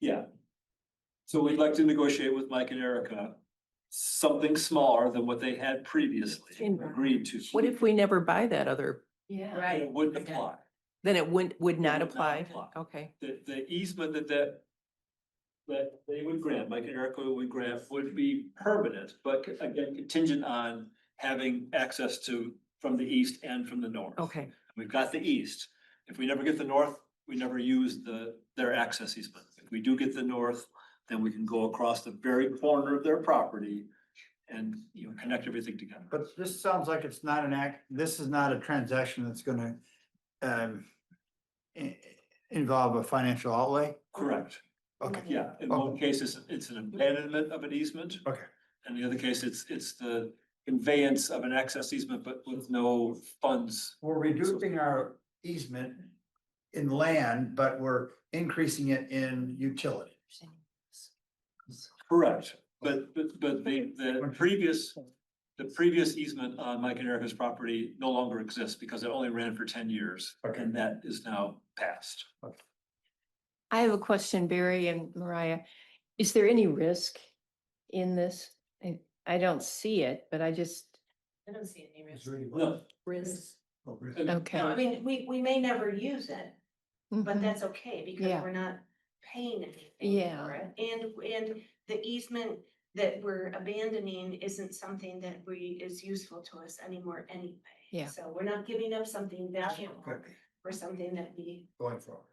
Yeah. So we'd like to negotiate with Mike and Erica, something smaller than what they had previously In- agreed to. What if we never buy that other, Yeah. And It Right, wouldn't Okay. apply, then it wouldn't, would not It would not apply? apply. Okay, the, the easement that that. That they would grant, Mike and Erica would grant would be permanent, but again contingent on having access to, from the east and from the north. okay, We've got the east. If we never get the north, we never use the, their access easement. If we do get the north, then we can go across the very corner of their property and, you know, connect everything together. But this sounds like it's not an act, this is not a transaction that's gonna um. i- Involve a financial outlay, Correct, okay, yeah. In one case, it's, it's an abandonment of an easement. Okay. And the other case, it's, it's the conveyance of an access easement, but with no funds. we're reducing our easement. In land, but we're increasing it in utility. Correct. But, but, but the, the previous, the previous easement on Mike and Erica's property no longer exists because it only ran for ten years. Okay. And that is now passed. I have a question, Barry and Mariah. Is there any risk in this? I, I don't see it, but I just, I don't see any risk. No. Risk. Okay. No, okay. I mean, we, we may never use it, but Mhm. that's okay because Yeah. we're not paying anything. Yeah. for it. And, and the easement that we're abandoning isn't something that we, is useful to us anymore anyway. Yeah. So we're not giving up something valuable Good, for something that we, Going forward.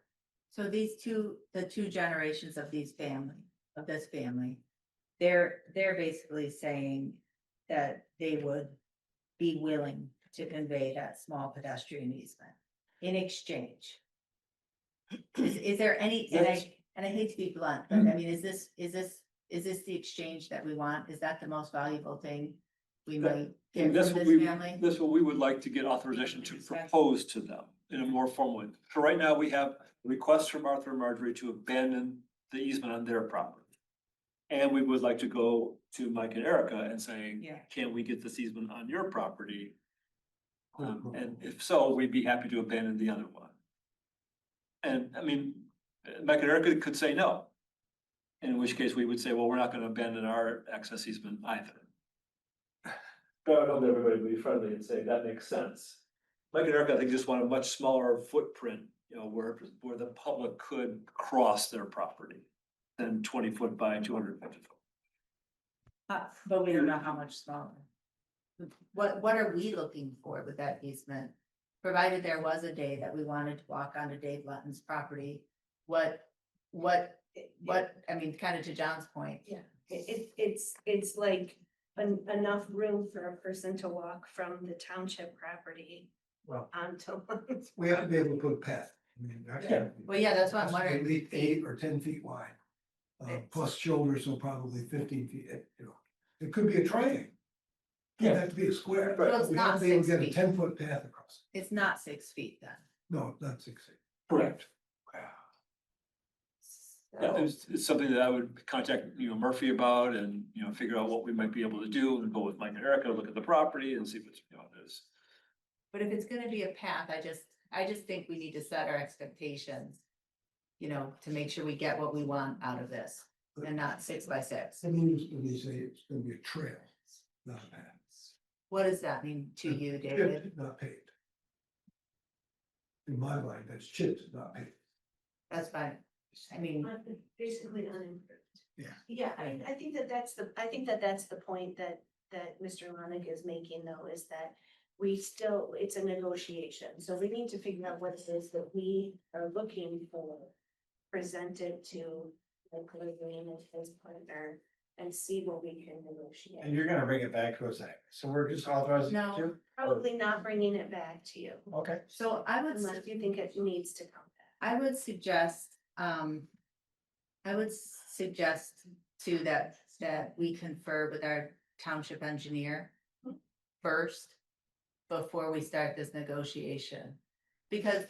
So these two, the two generations of these family, of this family, they're, they're basically saying that they would be willing to convey that small pedestrian easement in exchange. Is, is there any, and That's- I, and I hate to be blunt, but Mm-hmm. I mean, is this, is this, is this the exchange that we want? Is that the most valuable thing we That- might get And that's from what this we, family? that's what we would like to get authorization to propose to them in a more formal way. So right now, we have requests from Arthur and Marjorie to abandon the easement on their property. And we would like to go to Mike and Erica and saying, Yeah. can we get this easement on your property? Um, and if so, we'd be happy to abandon the other one. And I mean, uh, Mike and Erica could say no. In which case, we would say, well, we're not gonna abandon our access easement either. But I would hope everybody would be friendly and say, that makes sense. Mike and Erica, I think, just want a much smaller footprint, you know, where, where the public could cross their property than twenty foot by two hundred fifty foot. Uh, but we don't know how much smaller. What, what are we looking for with that easement? Provided there was a day that we wanted to walk onto Dave Lutton's property, what, what, what, I mean, kind of to John's point. it- it, it's, it's like en- enough room for a person to walk from the township property Well, onto. We have to be able to put a path. I mean, that can't be- Well, yeah, that's what That's I'm at wondering. least eight or ten feet wide. Uh, plus shoulders, so probably fifteen feet, eh, you know, it could be a triangle. Doesn't have to be a square. Well, it's We have not to be able to six get a feet. ten foot path across. It's not six feet then. No, not six feet. Correct. Wow. Yeah, So- it's, it's something that I would contact, you know, Murphy about and, you know, figure out what we might be able to do and go with Mike and Erica, look at the property and see what's, you know, there's. But if it's gonna be a path, I just, I just think we need to set our expectations. You know, to make sure we get what we want out of this and not six by six. I mean, it's when you say it's gonna be a trail, not a path. What does that mean to you, David? Chipped, not paved. In my mind, that's chipped, not paved. That's fine. I mean. Basically unimproved. Yeah. Yeah, I mean, I think that that's the, I think that that's the point that, that Mr. Ronick is making though, is that we still, it's a negotiation, so we need to figure out what it is that we are looking for. Presented to the Caribbean and his partner and see what we can And negotiate. you're gonna bring it back to us, eh? so we're just authorizing. No. you Probably not bringing it back to you, to? Okay. So I would, unless you think it needs to come back. I would suggest, um. I would suggest too that, that we confer with our township engineer first. Before we start this negotiation. Because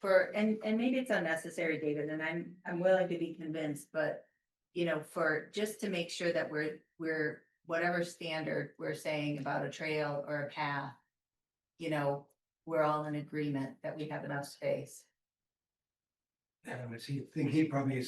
for, and, and maybe it's unnecessary, David, and I'm, I'm willing to be convinced, but. You know, for, just to make sure that we're, we're, whatever standard we're saying about a trail or a path. You know, we're all in agreement that we have enough space. And I would see- think he probably